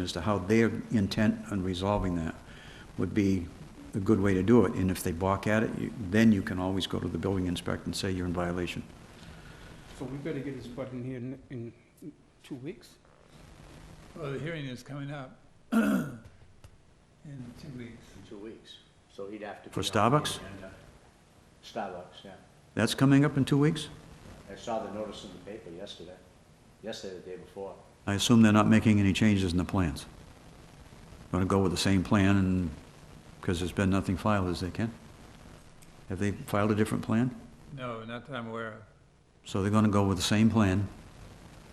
as to how their intent on resolving that would be a good way to do it. And if they balk at it, you- then you can always go to the building inspector and say you're in violation. So we better get this button here in, in two weeks? Well, the hearing is coming up in two weeks. in two weeks, so he'd have to. For be on the Starbucks? agenda. Starbucks, yeah. That's coming up in two weeks? I saw the notice in the paper yesterday, yesterday, the day before. I assume they're not making any changes in the plans. Going to go with the same plan and, because there's been nothing filed as they can? Have they filed a different plan? No, not that I'm aware of. So they're going to go with the same plan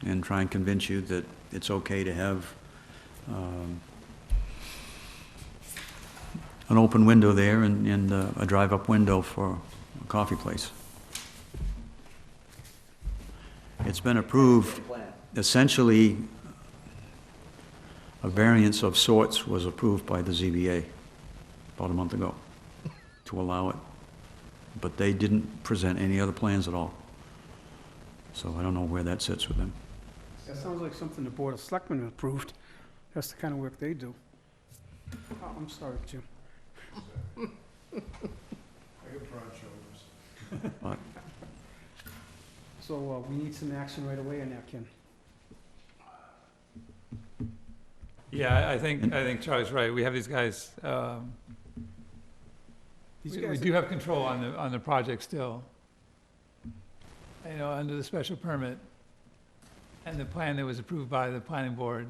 and try and convince you that it's okay to have um, an open window there and, and uh, a drive-up window for a coffee place. It's been approved Plan, essentially, a variance of sorts was approved by the ZBA about a month ago to allow it. But they didn't present any other plans at all. So I don't know where that sits with them. That sounds like something the Board of Selectmen approved. That's the kind of work they do. Oh, I'm sorry, Jim. I got broad shoulders. So, uh, we need some action right away on that, Ken. Yeah, I- I think, I think Charlie's right. We have these guys, um, These we we guys, do have control on the, on the project still. You know, under the special permit and the plan that was approved by the planning board.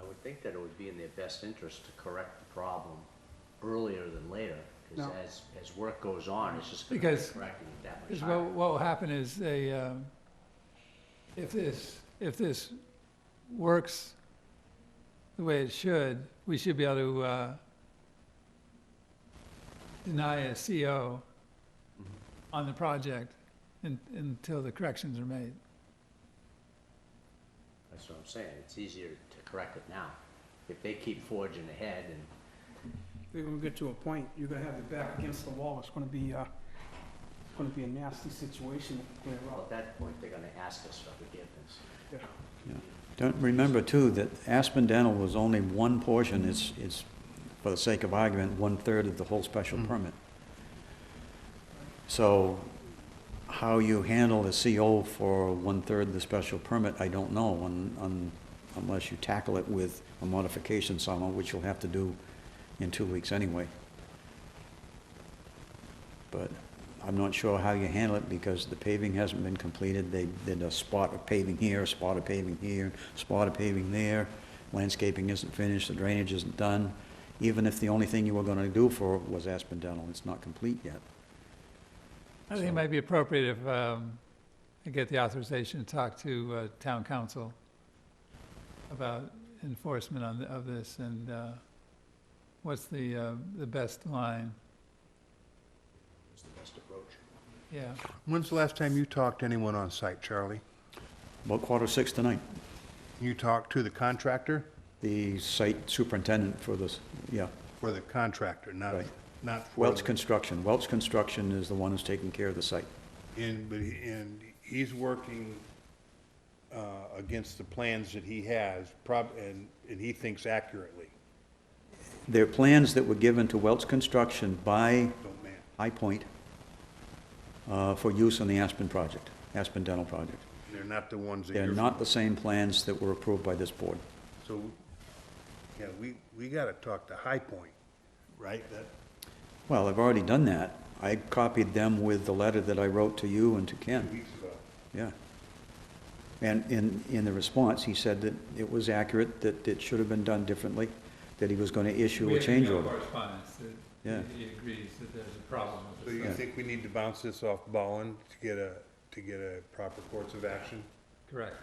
I would think that it would be in their best interest to correct the problem earlier than later, because No. as, as work goes on, it's just gonna be Because- corrected at that much Because time. what, what will happen is they, um, if this, if this works the way it should, we should be able to, uh, deny a CO on the project un until the corrections are made. That's what I'm saying, it's easier to correct it now. If they keep forging ahead and they're gonna get to a point, you're gonna have the back against the wall. It's gonna be, uh, it's gonna be a nasty situation to clear Well, up. at that point, they're gonna ask us for forgiveness. Don't, remember too, that Aspen Dental was only one portion, it's, it's, for the sake of argument, one-third of the whole special permit. So, how you handle a CO for one-third of the special permit, I don't know, un- un- unless you tackle it with a modification somehow, which you'll have to do in two weeks anyway. But I'm not sure how you handle it because the paving hasn't been completed. They did a spot of paving here, a spot of paving here, spot of paving there. Landscaping isn't finished, the drainage isn't done. Even if the only thing you were gonna do for it was Aspen Dental, it's not complete yet. I think it So- might be appropriate if, um, I get the authorization to talk to, uh, town council about enforcement on, of this and, uh, what's the, uh, the best line? It's the best approach. Yeah, When's the last time you talked to anyone on site, Charlie? About quarter six tonight, You talked to the contractor? the site superintendent for this, yeah, For the contractor, not, Right. not for. Welch the- Construction. Welch Construction is the one who's taking care of the site. And, but, he- and he's working, uh, against the plans that he has, prob, and, and he thinks accurately, Their plans that were given to Welch Construction by don't man. High Point uh, for use on the Aspen project, Aspen Dental project. They're not the ones that you're. They're not the same plans that were approved by this board. So, yeah, we, we gotta talk to High Point, right? That, Well, I've already done that. I copied them with the letter that I wrote to you and to two Ken, weeks ago. yeah. And in, in the response, he said that it was accurate, that it should have been done differently, that he was going to issue We a have change email order. correspondence Yeah. that he he agrees that there's a problem So with you this. think we need to bounce this off Ballin to get a, to get a proper course of action? Correct.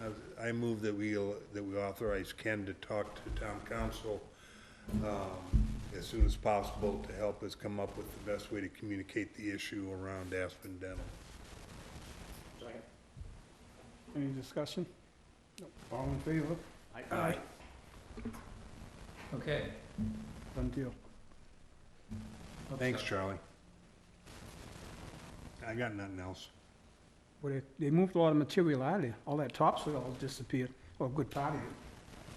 I- I move that we, that we authorize Ken to talk to town council um, as soon as possible to help us come up with the best way to communicate the issue around Aspen Dental. Second. Any discussion? Nope. All in favor? I- Aye. Okay. Done deal. Hope Thanks, so. Charlie. I got nothing else. Well, they, they moved a lot of material out of there. All that topsoil disappeared, or a good part of it.